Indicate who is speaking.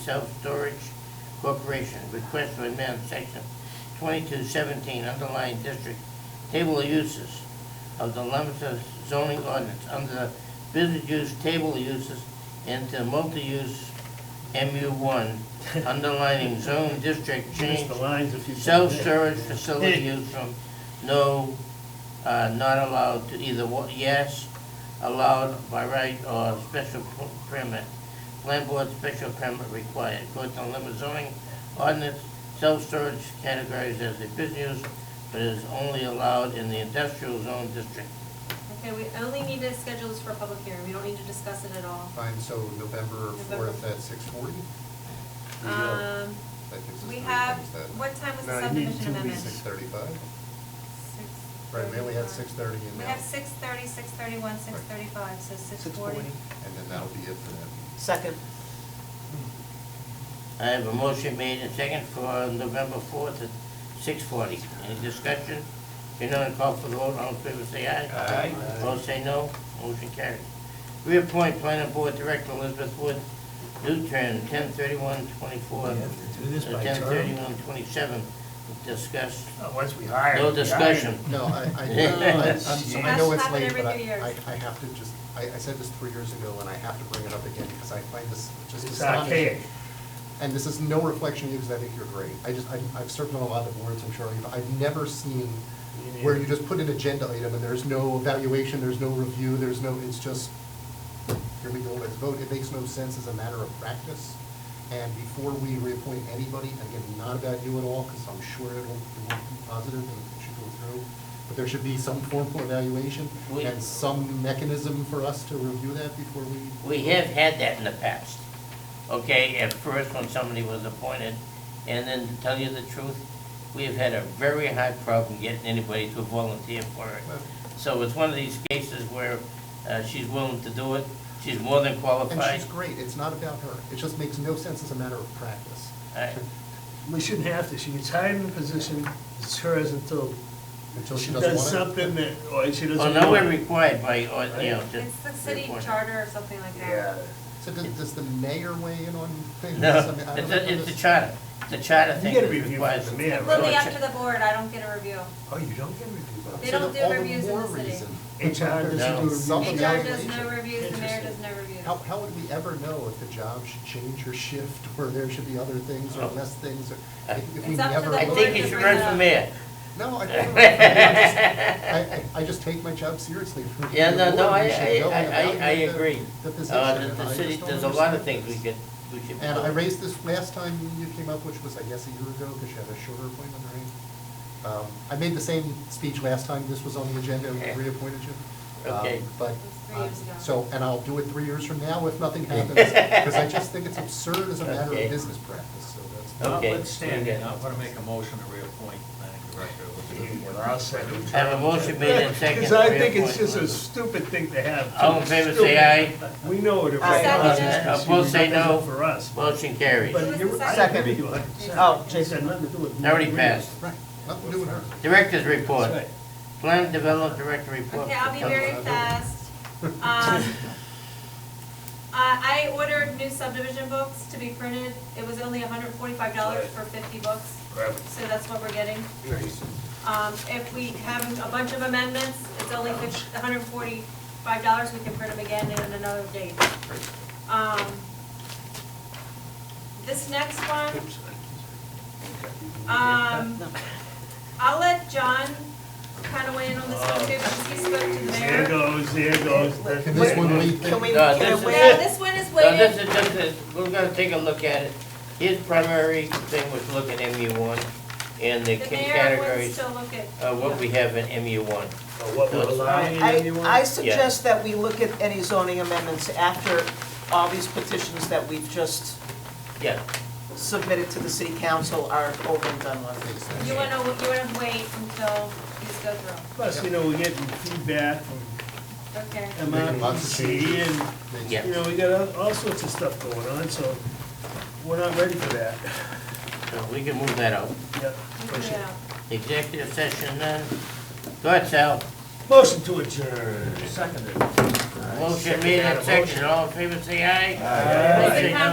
Speaker 1: Self-Storage Corporation, request to amend section twenty-two seventeen underlying district table of uses of the Lummester zoning ordinance under business use table of uses into multi-use MU one underlining zone district
Speaker 2: Finish
Speaker 1: change
Speaker 2: the lines if you. can.
Speaker 1: self-storage facility use from no, uh, not allowed to either wa- yes, allowed by right or special p- permit. Land board special permit required. According to Lima zoning ordinance, self-storage categorized as a business, but is only allowed in the industrial zone district.
Speaker 3: Okay, we only need to schedule this for a public hearing, we don't need to discuss it at all.
Speaker 4: Fine, so November
Speaker 3: November.
Speaker 4: fourth at six forty?
Speaker 3: Um, we have, what time was the subdivision amendment?
Speaker 4: Six thirty-five,
Speaker 3: Six
Speaker 4: right, we only had
Speaker 3: thirty-five.
Speaker 4: six thirty and
Speaker 3: We
Speaker 4: now,
Speaker 3: have six thirty, six thirty-one, six thirty-five, so six forty.
Speaker 4: and then that'll be it for that.
Speaker 5: Second.
Speaker 1: I have a motion made and second for November fourth at six forty. Any discussion? If none, call for the vote, all in favor say aye.
Speaker 4: Aye.
Speaker 1: Opposed say no, motion carried. Reappoint planning board director Elizabeth Wood, new term, ten thirty-one twenty-four. Uh,
Speaker 6: We have to do this by
Speaker 1: Ten
Speaker 6: term.
Speaker 1: thirty-one twenty-seven, discuss,
Speaker 2: Uh, Once we hire.
Speaker 1: no
Speaker 2: we hire.
Speaker 1: discussion.
Speaker 4: No, I, I, I, I'm so- I know
Speaker 3: That's
Speaker 4: it's
Speaker 3: happened
Speaker 4: late,
Speaker 3: every
Speaker 4: but I,
Speaker 3: few years.
Speaker 4: I I have to just, I, I said this three years ago, and I have to bring it up again, because I find this just
Speaker 2: It's
Speaker 4: astonishing.
Speaker 2: archaic.
Speaker 4: And this is no reflection of you, because I think you're great. I just, I, I've served on a lot of boards, I'm sure, but I've never seen
Speaker 2: Me
Speaker 4: where you
Speaker 2: neither.
Speaker 4: just put an agenda item, and there's no evaluation, there's no review, there's no, it's just, here we go, let's vote. It makes no sense as a matter of practice. And before we reappoint anybody, and again, not about you at all, because I'm sure it'll, it will be positive and it should go through, but there should be some formal evaluation
Speaker 1: We-
Speaker 4: and some mechanism for us to review that before we.
Speaker 1: We have had that in the past, okay? At first, when somebody was appointed, and then to tell you the truth, we have had a very high problem getting anybody to volunteer for it. So it's one of these cases where uh, she's willing to do it, she's more than
Speaker 4: And
Speaker 1: qualified.
Speaker 4: she's great, it's not about her, it just makes no sense as a matter of practice.
Speaker 1: I-
Speaker 2: We shouldn't have to, she gets hired in a position, it's hers until
Speaker 4: Until
Speaker 2: she
Speaker 4: she doesn't
Speaker 2: does
Speaker 4: want it.
Speaker 2: something that, or she doesn't
Speaker 1: Well,
Speaker 2: want.
Speaker 1: now we're required by, or, you know, to.
Speaker 3: It's the city
Speaker 1: report.
Speaker 3: charter or something like
Speaker 2: Yeah.
Speaker 3: that.
Speaker 4: So does, does the mayor weigh in on things?
Speaker 1: No,
Speaker 4: I mean, I
Speaker 1: it's, a-
Speaker 4: don't know
Speaker 1: it's the
Speaker 4: this-
Speaker 1: charter, the charter
Speaker 2: You
Speaker 1: thing
Speaker 2: gotta
Speaker 1: that
Speaker 2: review
Speaker 1: requires.
Speaker 2: the mayor,
Speaker 1: them.
Speaker 2: right?
Speaker 3: Completely up to the board, I don't get a review.
Speaker 6: Oh, you don't get reviewed by
Speaker 3: They
Speaker 4: So
Speaker 3: don't do
Speaker 4: then all the
Speaker 3: reviews in the
Speaker 4: more
Speaker 3: city.
Speaker 4: reason.
Speaker 2: HR doesn't
Speaker 1: No.
Speaker 2: do reviews.
Speaker 4: Some
Speaker 3: HR does no
Speaker 4: evaluation.
Speaker 3: reviews, the mayor does no reviews.
Speaker 4: How, how would we ever know if the job should change or shift, or there should be other things, or
Speaker 1: Oh.
Speaker 4: less things, or
Speaker 1: Uh,
Speaker 4: if if we
Speaker 3: It's up to
Speaker 4: never.
Speaker 3: the
Speaker 1: I
Speaker 4: look-
Speaker 1: think you should run for mayor.
Speaker 4: No, I, don't. I, just- I, I- I just take my job seriously.
Speaker 1: Yeah, no, no, I,
Speaker 4: We should
Speaker 1: I,
Speaker 4: go
Speaker 1: I,
Speaker 4: and
Speaker 1: I- I
Speaker 4: evaluate the-
Speaker 1: agree.
Speaker 4: The position.
Speaker 1: Uh, the, the
Speaker 4: I
Speaker 1: city,
Speaker 4: just don't
Speaker 1: there's a lot of
Speaker 4: understand
Speaker 1: things we
Speaker 4: this.
Speaker 1: could, we should.
Speaker 4: And
Speaker 1: do.
Speaker 4: I raised this last time you came up, which was, I guess, a year ago, because you had a shorter appointment, right? Um, I made the same speech last time this was on the agenda, and
Speaker 1: Okay.
Speaker 4: we reappointed you. Um,
Speaker 1: Okay.
Speaker 3: It
Speaker 4: But,
Speaker 3: was three
Speaker 4: uh,
Speaker 3: years ago.
Speaker 4: so, and I'll do it three years from now if nothing happens, because I just think it's absurd as a matter
Speaker 1: Okay.
Speaker 4: of business practice, so that's.
Speaker 1: Okay.
Speaker 6: Notwithstanding, I'm gonna make a motion to reappoint planning director Elizabeth Wood.
Speaker 2: I'll second.
Speaker 1: I have a motion made and seconded.
Speaker 2: Because I think it's just a stupid thing to have.
Speaker 1: All in favor, say
Speaker 2: Stupid. We know it.
Speaker 5: I'll second
Speaker 3: it.
Speaker 1: Opposed, say no.
Speaker 2: For us.
Speaker 1: Motion carries.
Speaker 2: But you're, I
Speaker 5: Second.
Speaker 2: agree with you a hundred percent.
Speaker 5: Oh,
Speaker 2: It's
Speaker 5: Jason.
Speaker 2: got nothing to do with.
Speaker 1: Already passed.
Speaker 4: Right, nothing doing her.
Speaker 1: Director's report.
Speaker 2: That's right.
Speaker 1: Plan develop director report.
Speaker 3: Okay, I'll be
Speaker 1: for
Speaker 3: very
Speaker 1: council.
Speaker 3: fast. Um, uh, I ordered new subdivision books to be printed. It was only hundred forty-five dollars for fifty books,
Speaker 2: Grab it.
Speaker 3: so that's what we're getting. Um, If we have a bunch of amendments, it's only hundred forty-five dollars. We can print them again in another date. Um, This next one, um, I'll let John kind of weigh in on this one too, because he spoke to the
Speaker 2: There
Speaker 3: mayor.
Speaker 2: goes, there goes. the-
Speaker 4: Can this one lead?
Speaker 5: Can we,
Speaker 1: No,
Speaker 5: can
Speaker 1: this
Speaker 5: we,
Speaker 3: Now, this one is
Speaker 1: So
Speaker 3: weighted
Speaker 1: this is just, a- we're gonna take a look at it. His primary thing was look at MU one and the
Speaker 3: The mayor wants
Speaker 1: categories,
Speaker 3: to look at.
Speaker 1: uh, what we have in MU one.
Speaker 2: Or Oh, What we're allowing
Speaker 5: I,
Speaker 2: anyone.
Speaker 5: I suggest that we look at any zoning amendments after all these petitions that we've just
Speaker 1: Yeah,
Speaker 5: submitted to the city council are over and done with.
Speaker 4: Makes sense.
Speaker 3: You wanna, you wanna wait until these go through,
Speaker 2: Plus, you know, we're getting feedback from
Speaker 3: okay?
Speaker 4: Making lots of
Speaker 2: MRPC
Speaker 4: changes.
Speaker 2: and
Speaker 4: Makes-
Speaker 1: Yeah.
Speaker 2: You know, we got all- all sorts of stuff going on, so we're not ready for that.
Speaker 1: so we can move that out.
Speaker 2: Yep.
Speaker 3: Yeah.
Speaker 1: Executive session none. Go ahead, Sal.
Speaker 2: Motion to adjourn.
Speaker 6: Seconded.
Speaker 1: Motion made and seconded. All in favor, say aye.
Speaker 3: Does
Speaker 1: Opposed,
Speaker 3: it
Speaker 1: say
Speaker 3: have
Speaker 1: no.